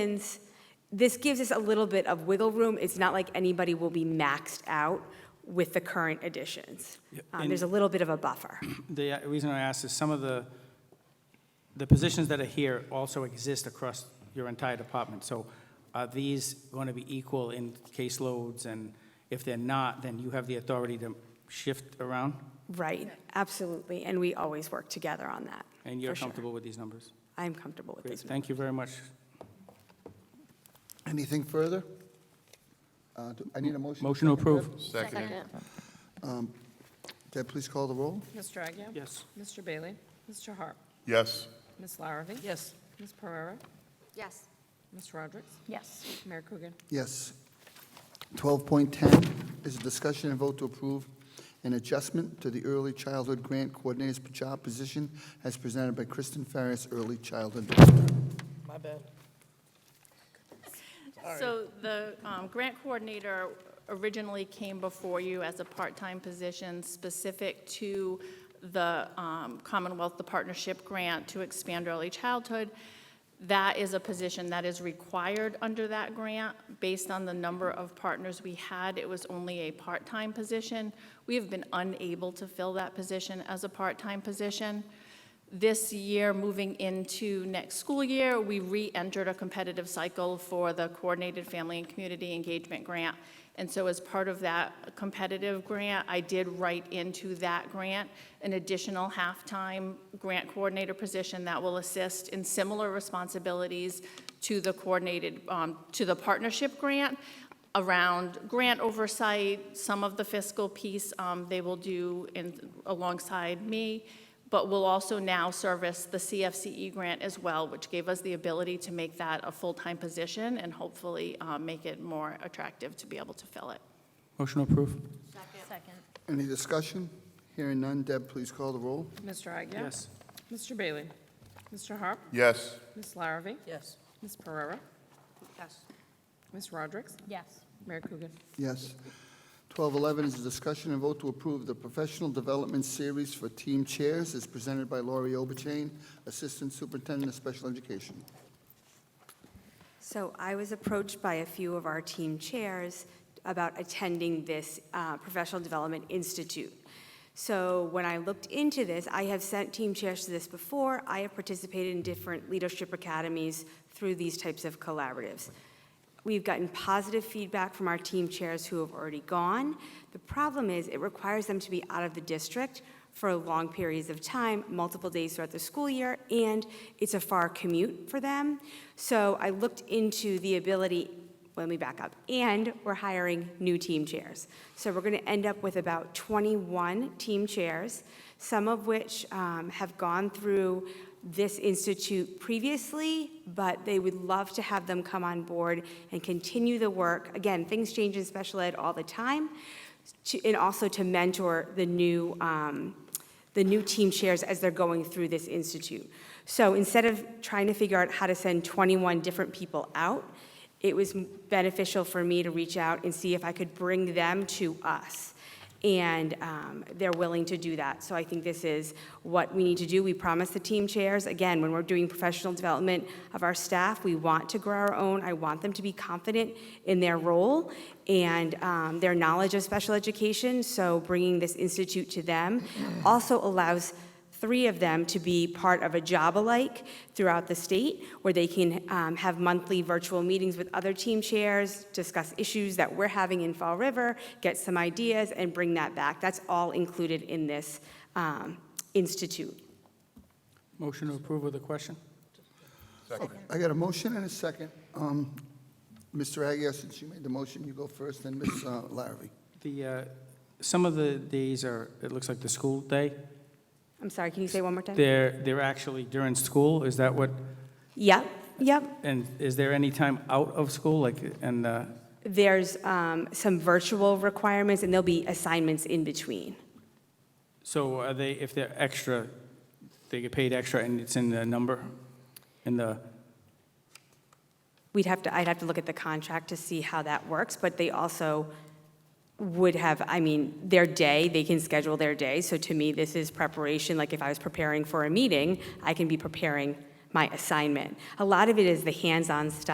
instance, this gives us a little bit of wiggle room. It's not like anybody will be maxed out with the current additions. Um, There's a little bit of a buffer. The uh, reason I ask is some of the, the positions that are here also exist across your entire department. So are these going to be equal in caseloads? And if they're not, then you have the authority to shift around? Right, absolutely. And we always work together on that. And you're for sure. comfortable with these numbers? I'm comfortable with Great, this. thank you very much. Anything further? Uh, do- I need a motion. Motion to approve. Second. Deb, please call the roll. Mr. Agia? Yes. Mr. Bailey? Mr. Harp? Yes, Ms. Larrabee? Yes. Ms. Pereira? Yes. Ms. Roderick? Yes. Mayor Coogan? Yes. 12.10 is a discussion and vote to approve an adjustment to the Early Childhood Grant Coordinator's job position as presented by Kristen Ferris, Early Childhood. My bad. So the um, grant coordinator originally came before you as a part-time position specific to the um, Commonwealth, the partnership grant to expand early childhood. That is a position that is required under that grant. Based on the number of partners we had, it was only a part-time position. We have been unable to fill that position as a part-time position. This year, moving into next school year, we re-entered a competitive cycle for the Coordinated Family and Community Engagement Grant. And so as part of that competitive grant, I did write into that grant an additional half-time grant coordinator position that will assist in similar responsibilities to the coordinated, um, to the partnership grant around grant oversight, some of the fiscal piece um, they will do in- alongside me but will also now service the CFCE E grant as well, which gave us the ability to make that a full-time position and hopefully uh, make it more attractive to be able to fill it. Motion to approve. Second. Any discussion? Hearing none, Deb, please call the roll. Mr. Agia? Yes. Mr. Bailey? Mr. Harp? yes, Ms. Larrabee? Yes. Ms. Pereira? Yes. Ms. Roderick? Yes. Mayor Coogan? Yes. 12.11 is a discussion and vote to approve the Professional Development Series for Team Chairs as presented by Laurie Oberchain, Assistant Superintendent of Special Education. So I was approached by a few of our team chairs about attending this uh, Professional Development Institute. So when I looked into this, I have sent team chairs to this before. I have participated in different leadership academies through these types of collaboratives. We've gotten positive feedback from our team chairs who have already gone. The problem is, it requires them to be out of the district for long periods of time, multiple days throughout the school year, and it's a far commute for them. So I looked into the ability, let me back up, and we're hiring new team chairs. So we're going to end up with about 21 team chairs, some of which um, have gone through this institute previously, but they would love to have them come on board and continue the work. Again, things change in special ed all the time, to- and also to mentor the new, um, the new team chairs as they're going through this institute. So instead of trying to figure out how to send 21 different people out, it was beneficial for me to reach out and see if I could bring them to us and um, they're willing to do that. So I think this is what we need to do. We promise the team chairs, again, when we're doing professional development of our staff, we want to grow our own. I want them to be confident in their role and um, their knowledge of special education, so bringing this institute to them also allows three of them to be part of a job alike throughout the state where they can um, have monthly virtual meetings with other team chairs, discuss issues that we're having in Fall River, get some ideas, and bring that back. That's all included in this um, institute. Motion to approve with a question? I got a motion and a second. Um, Mr. Aguirre, since you made the motion, you go first, then Ms. uh, Larrabee. The, uh, some of the days are, it looks like the school day. I'm sorry, can you say one more time? They're, they're actually during school, is that what? Yep, yep. And is there any time out of school, like, and, uh, There's um, some virtual requirements, and there'll be assignments in between. so are they, if they're extra, they get paid extra and it's in the number, in the, We'd have to, I'd have to look at the contract to see how that works, but they also would have, I mean, their day, they can schedule their day. So to me, this is preparation, like if I was preparing for a meeting, I can be preparing my assignment. A lot of it is the hands-on stuff.